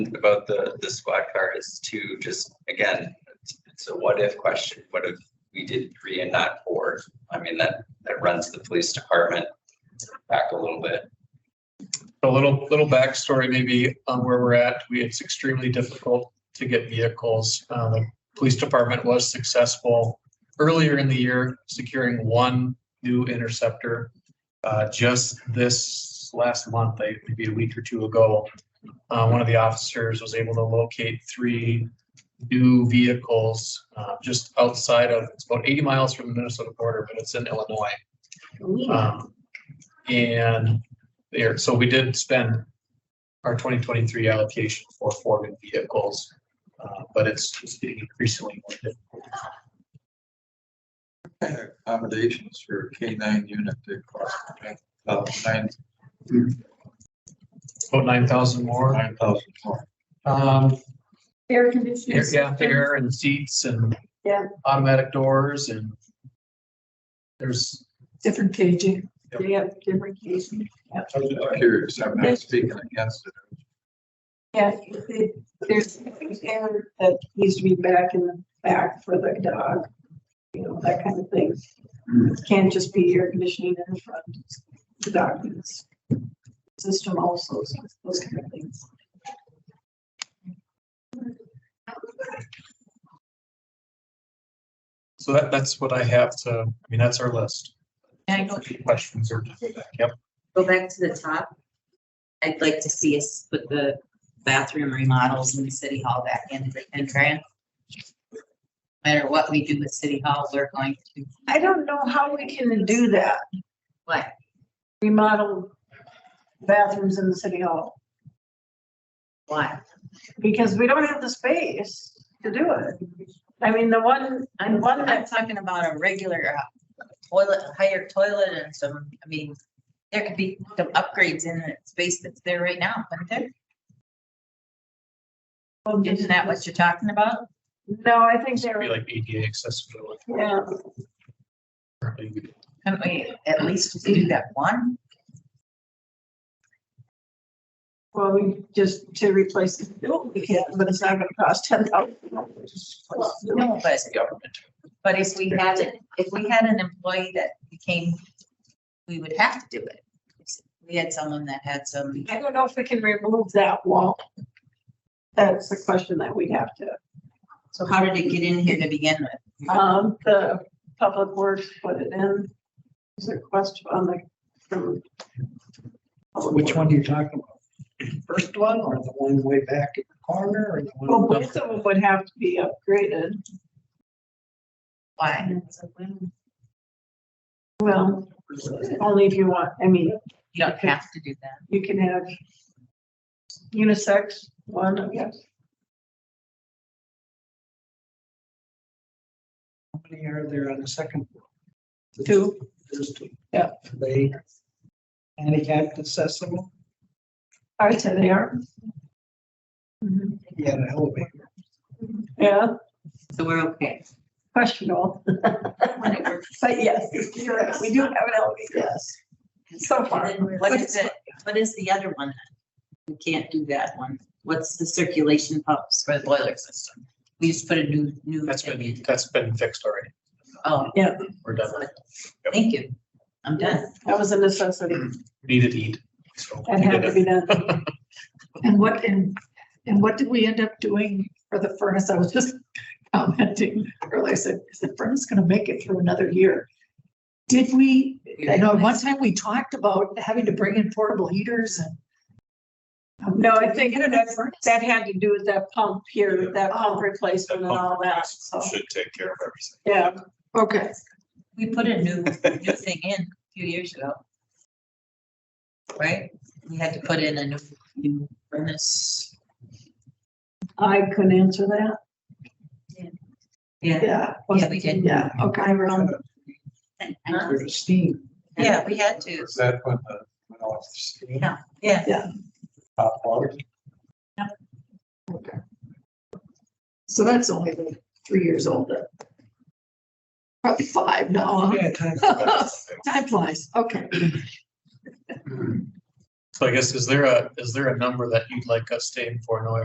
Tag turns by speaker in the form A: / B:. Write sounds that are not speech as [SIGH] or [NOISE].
A: about the, the squad car is to just, again, it's, it's a what if question. What if we did three and not four? I mean, that, that runs the police department back a little bit.
B: A little, little backstory maybe on where we're at. We, it's extremely difficult to get vehicles. Uh, the police department was successful earlier in the year securing one new interceptor. Uh, just this last month, like, maybe a week or two ago, uh, one of the officers was able to locate three new vehicles, uh, just outside of, it's about eighty miles from the Minnesota border, but it's in Illinois. Um, And there, so we did spend our twenty twenty-three allocation for Ford vehicles, uh, but it's it's getting increasingly more difficult.
C: kind of accommodations for K nine unit to cost about nine,
B: About nine thousand more.
C: nine thousand more.
B: Um,
D: Air conditioning.
B: air- yeah,
D: system.
B: air and seats and
D: Yeah.
B: automatic doors and there's,
D: Different caging.
B: Yep.
D: They have different caging.
C: I'm just curious, I'm not speaking against it.
D: Yeah, it- there's air that needs to be back in the back for the dog, you know, that kind of thing. It Can't just be air conditioning in the front, the dog needs system also, so those kind of things.
B: so that, that's what I have to, I mean, that's our list.
E: Can I go,
B: Questions or, yep,
E: go back to the top? I'd like to see us put the bathroom remodels in the city hall back in the in grant. No Matter what we do with city hall, we're going to,
D: I don't know how we can do that,
E: what,
D: remodel bathrooms in the city hall,
E: why?
D: because we don't have the space to do it. I mean, the one,
E: I'm,
D: and one
E: I'm
D: that,
E: talking about a regular uh, toilet, higher toilet and some, I mean, there could be some upgrades in the space that's there right now, couldn't there? Isn't that what you're talking about?
D: no, I think they're,
B: be like ADA accessibility.
D: yeah.
E: Couldn't we at least just do that one?
D: Well, we just to replace the building, we can, but it's not gonna cost ten thousand dollars.
E: No, but But if we had it, if we had an employee that became, we would have to do it. We had someone that had some,
D: I don't know if we can remove that wall. That's the question that we'd have to,
E: so how did it get in here to begin with?
D: um, the public works put it in. Is a question on the, from.
F: Which one are you talking about? First one or the one way back in the corner or the
D: Well,
F: one?
D: both of them would have to be upgraded.
E: Why?
D: Well, only if you want, I mean,
E: You don't have to do that.
D: you can have unisex one, yes.
F: How many are there on the second? floor?
D: Two.
F: There's two.
D: Yeah.
F: Are They handicapped accessible,
D: I'd say they are. Mhm.
F: yet elevator.
D: Yeah,
E: So we're [LAUGHS] okay.
D: questionable, but yes, you're right, we do have an elevator, yes. So far.
E: And then What is it, what is the other one? then? We can't do that one. What's the circulation pumps for the boiler system? We just put a new, new.
B: That's
E: thing
B: been,
E: in.
B: that's been fixed already.
E: Oh,
B: We're done.
E: thank you. I'm done.
D: That was a necessity,
B: We Need to eat. so
D: that
B: we
D: had
B: did
D: to
B: it.
D: be done. [LAUGHS]
G: And what, and, and what did we end up doing for the furnace? I was just commenting earlier, I said, is the furnace gonna make it through another year? Did we, I know at one time we talked about having to bring in portable heaters and.
D: No, I think
G: Did we get
D: that,
G: a furnace?
D: that had to do with that pump here, that pump replacement and all Oh. that, so,
B: Should take care of everything.
D: yeah.
G: Okay,
E: We put a new, new thing in a few years ago. Right? We had to put in a new, new furnace.
D: I couldn't answer that,
E: Yeah,
G: yeah.
E: Yeah, we did.
G: Yeah, okay.
D: I run,
E: Huh?
F: There's steam.
E: yeah, we had to,
C: Is that when the, when all the steam,
E: yeah.
C: hot water?
G: Okay. So that's only like three years old then. Probably five
D: Uh-huh.
G: now,
F: Yeah, time.
E: [LAUGHS]
G: huh? Time flies, okay.
B: So I guess, is there a, is there a number that you'd like us to aim for, Noah?